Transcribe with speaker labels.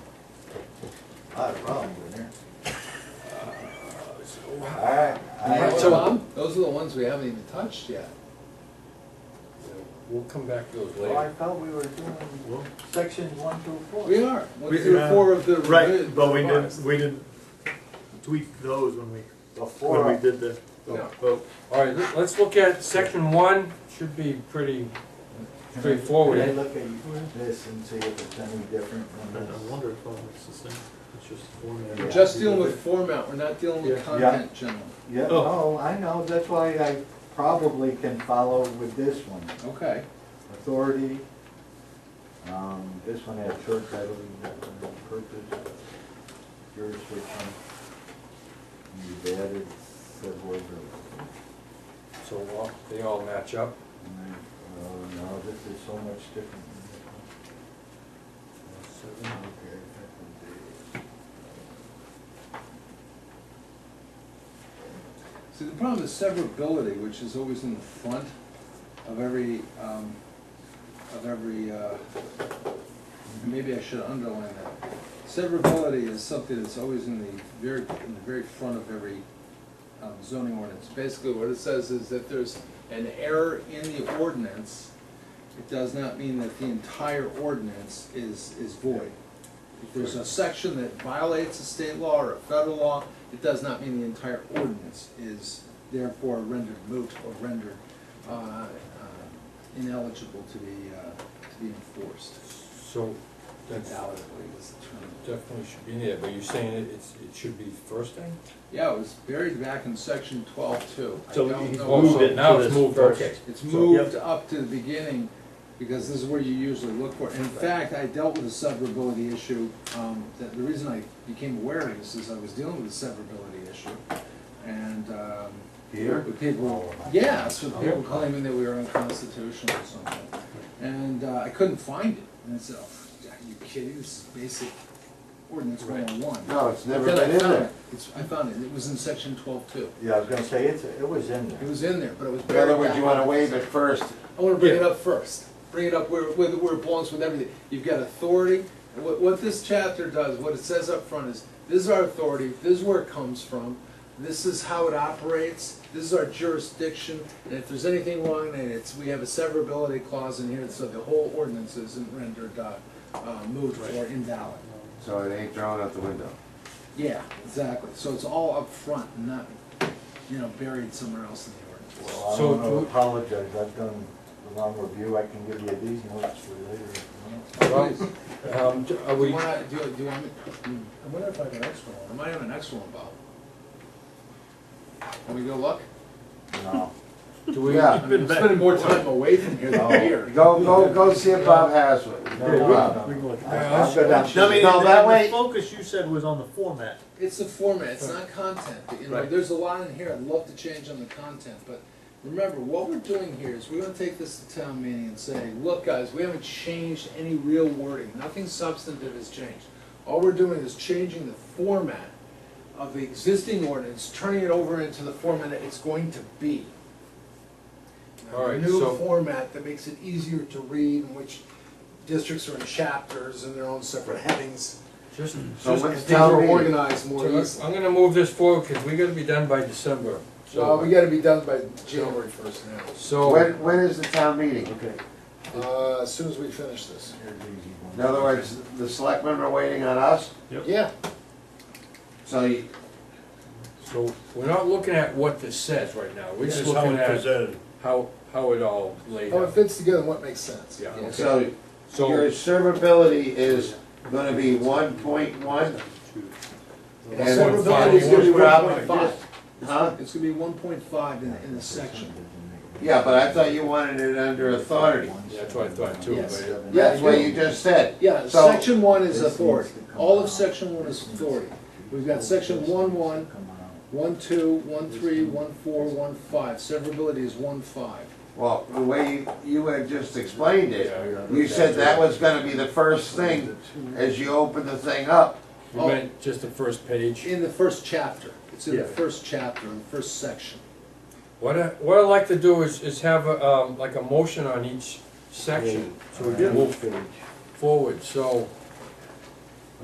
Speaker 1: I have a problem with it.
Speaker 2: So,
Speaker 1: Alright.
Speaker 2: Alright,
Speaker 3: So,
Speaker 1: I-
Speaker 2: Tom?
Speaker 3: Those are the ones we haven't even touched yet.
Speaker 2: We'll come back to those
Speaker 1: Well, I
Speaker 2: later.
Speaker 1: thought we were
Speaker 2: Well-
Speaker 1: doing sections one through four.
Speaker 3: We are, one
Speaker 4: We-
Speaker 3: through
Speaker 4: yeah.
Speaker 3: four of the.
Speaker 4: Right, but we
Speaker 3: revised.
Speaker 4: didn't, we didn't tweak those when we, when we
Speaker 1: Before,
Speaker 4: did the,
Speaker 2: No, well, All right, let- let's look at section one, should be pretty straightforward.
Speaker 1: they look at this and see if it's any different
Speaker 4: I
Speaker 1: than
Speaker 4: I
Speaker 1: this.
Speaker 4: wonder if all it's the same, it's just formatted.
Speaker 3: We're
Speaker 1: Yeah.
Speaker 3: just dealing with format, we're not dealing with
Speaker 4: Yeah.
Speaker 3: content, gentlemen.
Speaker 1: Yeah,
Speaker 4: Oh.
Speaker 1: no, I know, that's why I probably can follow with this one.
Speaker 3: Okay,
Speaker 1: Authority, um, this one had short title, that one had purpose, jurisdiction. And You've added several words.
Speaker 2: So uh, they all match up.
Speaker 1: And I- Oh, no, this is so much different than this one.
Speaker 2: Seven.
Speaker 1: Okay, effective date.
Speaker 3: see, the problem is severability, which is always in the front of every, um, of every, uh, maybe I should underline that. Severability is something that's always in the very, in the very front of every um, zoning ordinance. Basically, what it says is that there's an error in the ordinance, it does not mean that the entire ordinance is, is void. If there's a section that violates a state law or a federal law, it does not mean the entire ordinance is therefore rendered moot or rendered uh, uh, ineligible to be, uh, to be enforced.
Speaker 2: So that's
Speaker 3: Invalidly is the term.
Speaker 2: definitely should be in there, but you're saying it- it's, it should be first thing?
Speaker 3: Yeah, it was buried back in section twelve two. I
Speaker 4: So
Speaker 3: don't
Speaker 4: he's
Speaker 3: know-
Speaker 2: Oh,
Speaker 4: moved
Speaker 2: so
Speaker 4: it
Speaker 2: now
Speaker 4: to
Speaker 2: it's
Speaker 4: this
Speaker 2: moved,
Speaker 4: first.
Speaker 2: okay.
Speaker 3: It's
Speaker 2: So-
Speaker 3: moved up to the beginning, because this is where you usually look for. it. In fact, I dealt with a severability issue, um, that, the reason I became aware of this is I was dealing with a severability issue. And, um,
Speaker 1: uh, Here?
Speaker 3: with people, yes, with people claiming that we were unconstitutional or something. And, uh, I couldn't find it, and I said, oh, are you kidding, this is basic ordinance one oh one.
Speaker 1: No, it's never
Speaker 3: Then I
Speaker 1: been in
Speaker 3: found
Speaker 1: there.
Speaker 3: it. It's, I found it, it was in section twelve two.
Speaker 1: Yeah, I was gonna say, it's, it was in
Speaker 3: It
Speaker 1: there.
Speaker 3: was in there, but it was.
Speaker 5: In other
Speaker 3: buried
Speaker 5: words,
Speaker 3: back
Speaker 5: you
Speaker 3: in
Speaker 5: wanna
Speaker 3: the
Speaker 5: waive
Speaker 3: section.
Speaker 5: it first.
Speaker 3: I wanna bring it
Speaker 4: Yeah.
Speaker 3: up first, bring it up where, where, where it belongs with everything. You've got authority, And what, what this chapter does, what it says up front is, this is our authority, this is where it comes from, this is how it operates, this is our jurisdiction, and if there's anything wrong, and it's, we have a severability clause in here, so the whole ordinance isn't rendered, uh, uh, moot or invalid.
Speaker 5: So it ain't thrown out the window.
Speaker 3: Yeah, exactly, so it's all up front, and not, you know, buried somewhere else in the ordinance.
Speaker 1: Well, I
Speaker 2: So
Speaker 1: don't
Speaker 2: do-
Speaker 1: wanna apologize, I've done the long review, I can give you these notes for later. if you want.
Speaker 2: Well, um, d- Are
Speaker 3: Do
Speaker 2: we,
Speaker 3: you wanna, do you, do you want me, hmm, I wonder if I have an extra one, I might have an extra one, Bob. Can we go look?
Speaker 1: No.
Speaker 2: do we,
Speaker 3: I
Speaker 5: Yeah.
Speaker 3: mean, I'm spending more time away from here than
Speaker 1: No.
Speaker 3: here.
Speaker 5: Go, go, go see if Bob has one.
Speaker 1: No, no,
Speaker 4: We
Speaker 1: no.
Speaker 4: can look at
Speaker 1: I-
Speaker 4: that.
Speaker 1: I'll go down.
Speaker 4: No, I mean,
Speaker 5: No,
Speaker 4: and-
Speaker 5: that
Speaker 4: and the
Speaker 5: way-
Speaker 4: Focus you said was on the format.
Speaker 3: It's the format, it's not content, but, you know,
Speaker 4: Right.
Speaker 3: there's a lot in here, I'd love to change on the content, but remember, what we're doing here is we're gonna take this to town meeting and say, look, guys, we haven't changed any real wording, nothing substantive has changed. All we're doing is changing the format of the existing ordinance, turning it over into the format that it's going to be.
Speaker 2: All
Speaker 3: A
Speaker 2: right,
Speaker 3: new
Speaker 2: so-
Speaker 3: format that makes it easier to read, in which districts are in chapters and their own separate headings.
Speaker 2: just,
Speaker 5: So
Speaker 3: Just
Speaker 5: what's
Speaker 3: Things
Speaker 5: town
Speaker 3: are
Speaker 5: meeting?
Speaker 3: organized more easily.
Speaker 2: I'm gonna move this forward, because we gotta be done by December.
Speaker 3: Well, uh, we
Speaker 2: So,
Speaker 3: gotta be done by January first now,
Speaker 2: so,
Speaker 5: When, when is the town meeting?
Speaker 1: Okay,
Speaker 3: uh, as soon as we finish this.
Speaker 1: here's the easy one.
Speaker 5: In other words, the selectmen are waiting on us,
Speaker 3: Yeah,
Speaker 5: so you,
Speaker 2: so we're not looking at what this says right now, we're just
Speaker 4: This is how
Speaker 2: looking
Speaker 4: it
Speaker 2: at
Speaker 4: presented.
Speaker 2: how, how it all laid
Speaker 3: how it
Speaker 2: out.
Speaker 3: fits together and what makes sense.
Speaker 2: Yeah.
Speaker 5: so
Speaker 2: So,
Speaker 5: your servability is gonna be one point one?
Speaker 3: The
Speaker 5: And
Speaker 3: severability is gonna be
Speaker 5: Rob,
Speaker 3: 1.5.
Speaker 5: Huh?
Speaker 3: It's gonna be one point five in, in the section.
Speaker 5: Yeah, but I thought you wanted it under authority.
Speaker 2: Yeah, that's what I thought too,
Speaker 3: Yes.
Speaker 2: but
Speaker 1: Yeah,
Speaker 5: That's what you just said.
Speaker 3: Yeah,
Speaker 5: So-
Speaker 3: section one is authority, all of section one is authority. We've got section one, one, one, two, one, three, one, four, one, five, severability is one, five.
Speaker 5: Well, the way you, you had just explained it,
Speaker 2: Yeah.
Speaker 5: you said that was gonna be the first thing as you open the thing up.
Speaker 2: we went just the first page.
Speaker 3: In the first chapter, it's in the
Speaker 2: Yeah.
Speaker 3: first chapter, in the first section.
Speaker 2: What I, what I'd like to do is, is have a, um, like a motion on each section, so we can move
Speaker 1: page.
Speaker 2: forward, so,